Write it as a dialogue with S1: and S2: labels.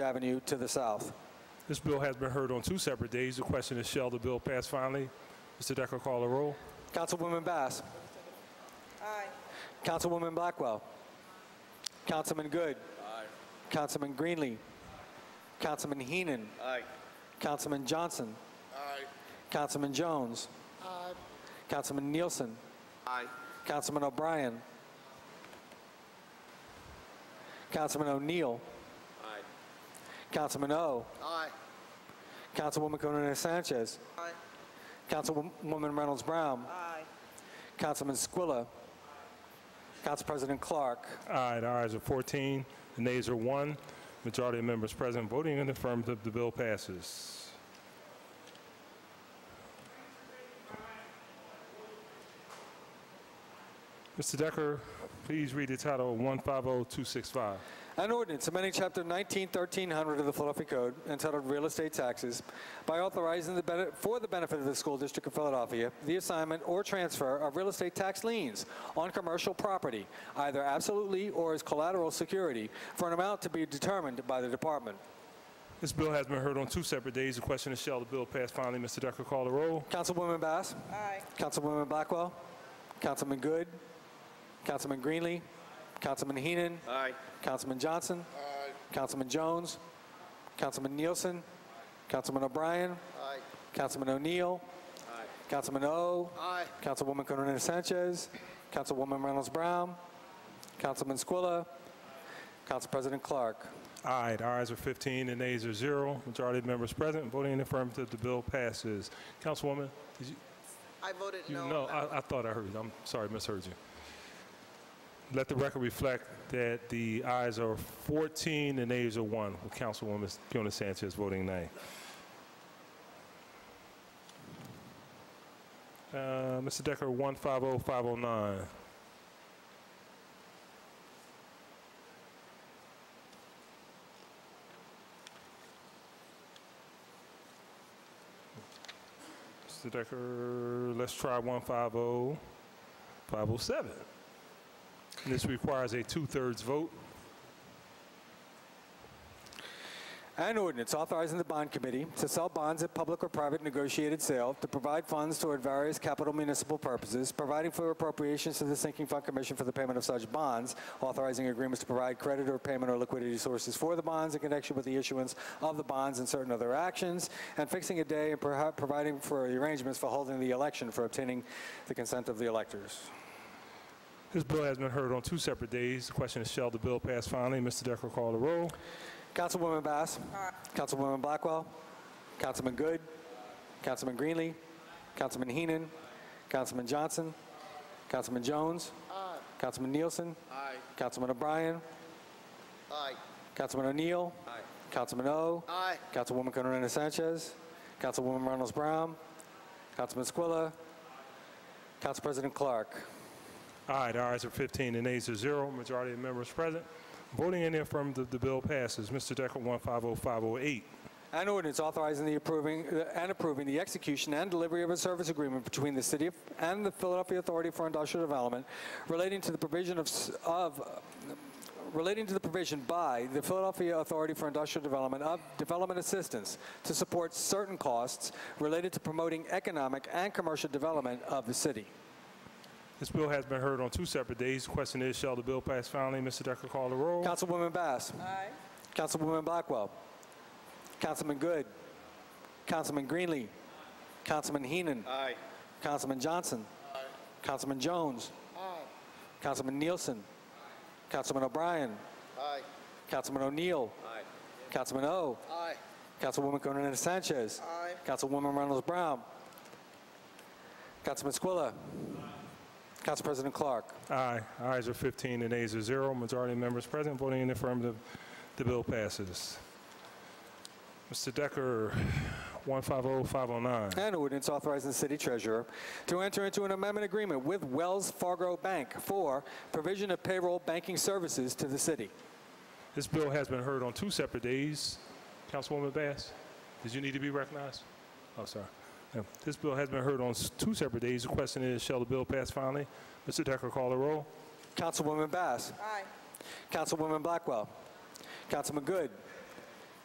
S1: Avenue to the south.
S2: This bill has been heard on two separate days. The question is, shall the bill pass finally? Mr. Decker, call the roll.
S1: Councilwoman Bass. Aye. Councilwoman Blackwell. Councilman Good. Aye. Councilman Greenlee. Councilman Heenan. Aye. Councilman Johnson. Aye. Councilman Jones. Aye. Councilman Nielsen. Aye. Councilman O'Brien. Councilman O'Neill. Aye. Councilman O. Aye. Councilwoman Conan Sanchez. Aye. Councilwoman Reynolds Brown.
S3: Aye.
S1: Councilman Squilla. Council President Clark.
S2: Aye, the ayes are 14, the nays are 1. Majority of members present voting in the affirmative, the bill passes. Mr. Decker, please read the title oh of 150265.
S1: An ordinance amending Chapter 19, 1300 of the Philadelphia Code entitled Real Estate Taxes by authorizing the bene- for the benefit of the school district of Philadelphia the assignment or transfer of real estate tax liens on commercial property, either absolutely or as collateral security, for an amount to be determined by the department.
S2: This bill has been heard on two separate days. The question is, shall the bill pass finally? Mr. Decker, call the roll.
S1: Councilwoman Bass.
S3: Aye.
S1: Councilwoman Blackwell. Councilman Good. Councilman Greenlee. Councilman Heenan.
S4: Aye.
S1: Councilman Johnson. Councilman Jones. Councilman Nielsen. Councilman O'Brien.
S4: Aye.
S1: Councilman O'Neill. Councilman O.
S4: Aye.
S1: Councilwoman Conan Sanchez. Councilwoman Reynolds Brown. Councilman Squilla. Council President Clark.
S2: Aye, the ayes are 15, the nays are 0. Majority of members present voting in the affirmative, the bill passes. Councilwoman, did you?
S3: I voted
S2: You
S3: no.
S2: know,
S3: on that
S2: I, I thought I heard you. I'm sorry, misheard you. Let the record reflect that the ayes are 14 and nays are 1, with Councilwoman Fiona Sanchez voting nay. Uh, Mr. Decker, oh, 150509. Mr. Decker, let's try oh, 150, 507. This requires a two-thirds vote.
S1: An ordinance authorizing the bond committee to sell bonds at public or private negotiated sale to provide funds toward various capital municipal purposes, providing for appropriations to the sinking fund commission for the payment of such bonds, authorizing agreements to provide credit or payment or liquidity sources for the bonds in connection with the issuance of the bonds and certain other actions, and fixing a day and perha- providing for the arrangements for holding the election for obtaining the consent of the electors.
S2: This bill has been heard on two separate days. The question is, shall the bill pass finally? Mr. Decker, call the roll.
S1: Councilwoman Bass. Councilwoman Blackwell. Councilman Good. Councilman Greenlee. Councilman Heenan. Councilman Johnson. Councilman Jones. Councilman Nielsen.
S4: Aye.
S1: Councilman O'Brien.
S4: Aye.
S1: Councilman O'Neill.
S4: Aye.
S1: Councilman O.
S4: Aye.
S1: Councilwoman Conorina Sanchez. Councilwoman Reynolds Brown. Councilman Squilla. Council President Clark.
S2: Aye, the ayes are 15 and nays are 0. Majority of members present. Voting in the affirmative, the bill passes. Mr. Decker, oh, 150508.
S1: An ordinance authorizing the approving, uh, and approving the execution and delivery of a service agreement between the city of- and the Philadelphia Authority for Industrial Development relating to the provision of, s- of, uh, relating to the provision by the Philadelphia Authority for Industrial Development of development assistance to support certain costs related to promoting economic and commercial development of the city.
S2: This bill has been heard on two separate days. The question is, shall the bill pass finally? Mr. Decker, call the roll.
S1: Councilwoman Bass.
S3: Aye.
S1: Councilwoman Blackwell. Councilman Good. Councilman Greenlee. Councilman Heenan.
S4: Aye.
S1: Councilman Johnson. Councilman Jones. Councilman Nielsen. Councilman O'Brien.
S4: Aye.
S1: Councilman O'Neill.
S4: Aye.
S1: Councilman O.
S4: Aye.
S1: Councilwoman Conan Sanchez.
S3: Aye.
S1: Councilwoman Reynolds Brown. Councilman Squilla. Council President Clark.
S2: Aye, ayes are 15 and nays are 0. Majority of members present. Voting in the affirmative, the bill passes. Mr. Decker, oh, 150509.
S1: An ordinance authorizing the city treasurer to enter into an amendment agreement with Wells Fargo Bank for provision of payroll banking services to the city.
S2: This bill has been heard on two separate days. Councilwoman Bass, did you need to be recognized? Oh, sorry. Yeah. This bill has been heard on s- two separate days. The question is, shall the bill pass finally? Mr. Decker, call the roll.
S1: Councilwoman Bass.
S3: Aye.
S1: Councilwoman Blackwell. Councilman Good.